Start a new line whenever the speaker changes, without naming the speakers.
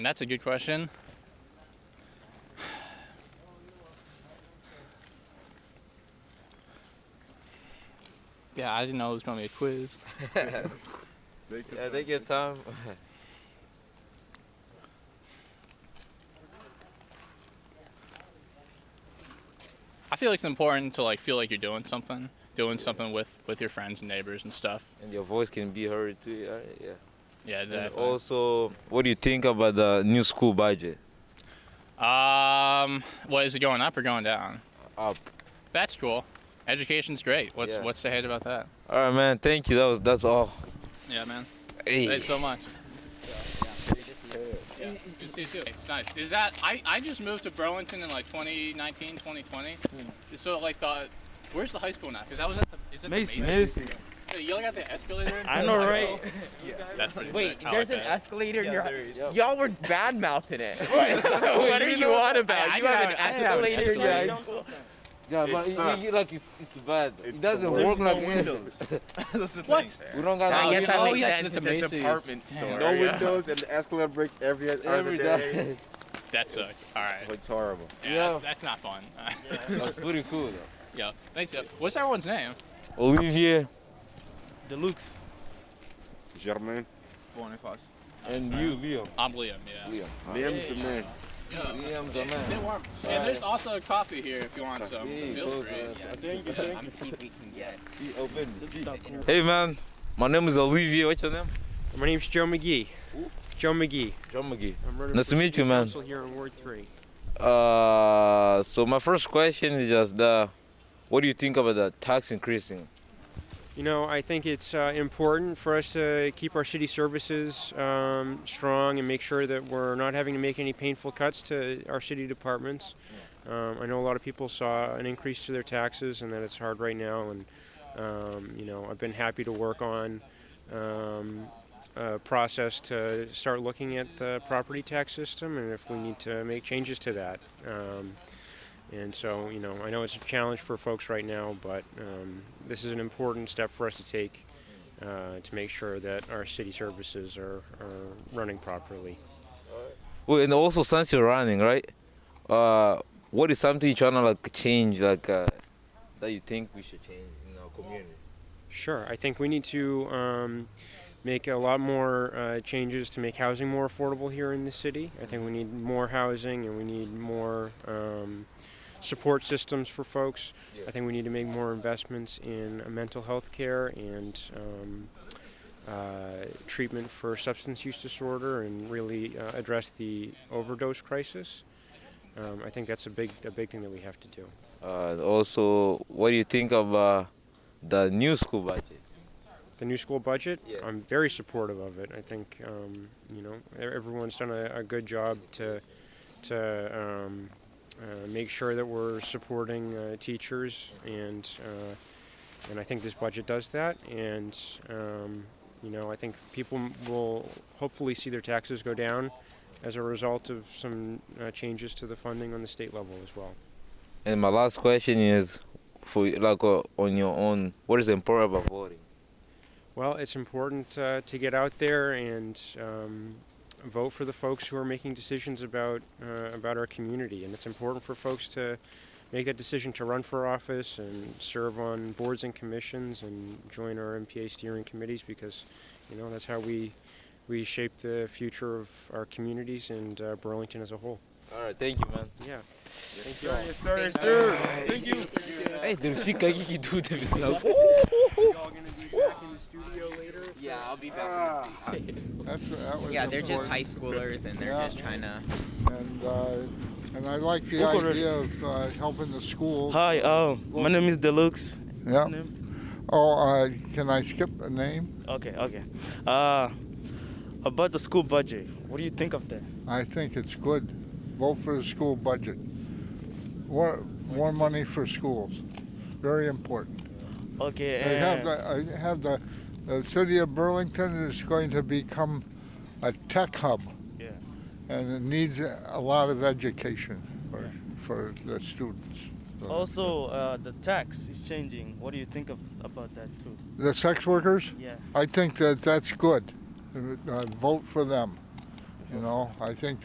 That's a good question. Yeah, I didn't know it was going to be a quiz.
Yeah, take your time.
I feel like it's important to like feel like you're doing something, doing something with with your friends and neighbors and stuff.
And your voice can be heard too. Yeah. yeah.
Yeah,
And
exactly.
also, what do you think about the new school budget?
Um, what is it going up or going down?
Up.
That's cool. Education's great. What's
Yeah.
what's to hate about that?
All right, man. Thank you. That was that's all.
Yeah, man.
Hey.
Thanks so much. Yeah. Good to see you too. It's nice. Is that I, I just moved to Burlington in like 2019, 2020. So like the where's the high school now? Because I was at the is it
Mason.
The Mason? Hey, You like got the escalator. into
I
the
know,
high
right?
school? That's pretty
Wait,
sick. I
there's
like
an
that.
escalator in your
Yep.
Y'all were bad mouthing it. what are you on about?
I- I
you have an
have- I have an
escalator in your
escalator.
high school.
Yeah,
It
but it,
sucks.
it- like it, it's bad. it doesn't
There's
work
no
like
windows.
What?
We don't got
I
no
guess that
oh,
makes
yeah,
sense.
it's
It's,
a
a
Macy's.
department store.
No
yeah.
windows and the escalator break every other
every
day.
day.
That sucks. All right.
It's horrible.
Yeah,
Yeah.
That's, that's not fun.
That's pretty cool. Though.
yeah. Thanks. Yep. What's everyone's name?
Olivier
Deluxe.
Germain,
and you, Liam.
I'm Liam. Yeah.
Liam. Liam's the man.
Yeah.
Liam's the
They
man.
warm. And there's also a coffee here if you want some.
Yeah,
Feel
go,
free.
guys.
Yeah.
Thank you,
Yeah.
thank
I'm see if we can get.
you. Open. Hey, man. My name is Olivier. What's your name?
My name's Joe McGee. Joe McGee.
John McGee.
I'm running
Nice
for
to meet
city
you, man.
council Here in Ward Three.
Uh, so my first question is just the, what do you think about the tax increasing?
You know, I think it's uh, important for us to keep our city services um, strong and make sure that we're not having to make any painful cuts to our city departments. Um, I know a lot of people saw an increase to their taxes and that it's hard right now. And um, you know, I've been happy to work on um, a process to start looking at the property tax system and if we need to make changes to that. Um, And so, you know, I know it's a challenge for folks right now, but um, this is an important step for us to take uh, to make sure that our city services are, are running properly.
Well, and also since you're running, right? Uh, what is something you're trying to like change, like uh, that you think we should change in our community?
Sure, I think we need to um, make a lot more uh, changes to make housing more affordable here in the city. I think we need more housing and we need more um, support systems for folks.
Yeah.
I think we need to make more investments in uh, mental health care and um, uh, treatment for substance use disorder and really uh, address the overdose crisis. Um, I think that's a big, a big thing that we have to do.
Uh, and also, what do you think of uh, the new school budget?
the new school budget.
Yeah.
I'm very supportive of it. I think um, you know e- everyone's done a, a good job to to um, uh, make sure that we're supporting uh, teachers, and uh, and I think this budget does that. And um, you know, I think people m- will hopefully see their taxes go down as a result of some uh, changes to the funding on the state level as well.
And my last question is, for you, like uh, on your own, what is important about voting?
Well, it's important uh, to get out there and um, vote for the folks who are making decisions about uh, about our community, and it's important for folks to make that decision to run for office and serve on boards and commissions and join our MPA steering committees because you know that's how we we shape the future of our communities and uh, Burlington as a whole.
All right, thank you, man.
Yeah.
Thank you. Yes, sir. Yes, sir. Thank you.
Hey, the fika you do the
Yeah, I'll be
Ah.
back.
That's, that was
yeah, they're just
important.
high schoolers and they're
Yeah.
just trying to.
And, uh, and I like the
Local
idea of uh, helping the school.
Hi, uh, my name is Deluxe.
Yeah.
Name?
Oh, uh, can I skip the name?
Okay, okay. Uh, about the school budget, what do you think of that?
I think it's good. Vote for the school budget. More, more money for schools. Very important.
Okay,
They have
and,
the, I have the, the city of Burlington is going to become a tech hub.
Yeah.
And it needs a lot of education for, for the students. So-
also uh, the tax is changing. What do you think of about that too?
The sex workers?
Yeah.
I think that that's good. Uh, vote for them. You know, I think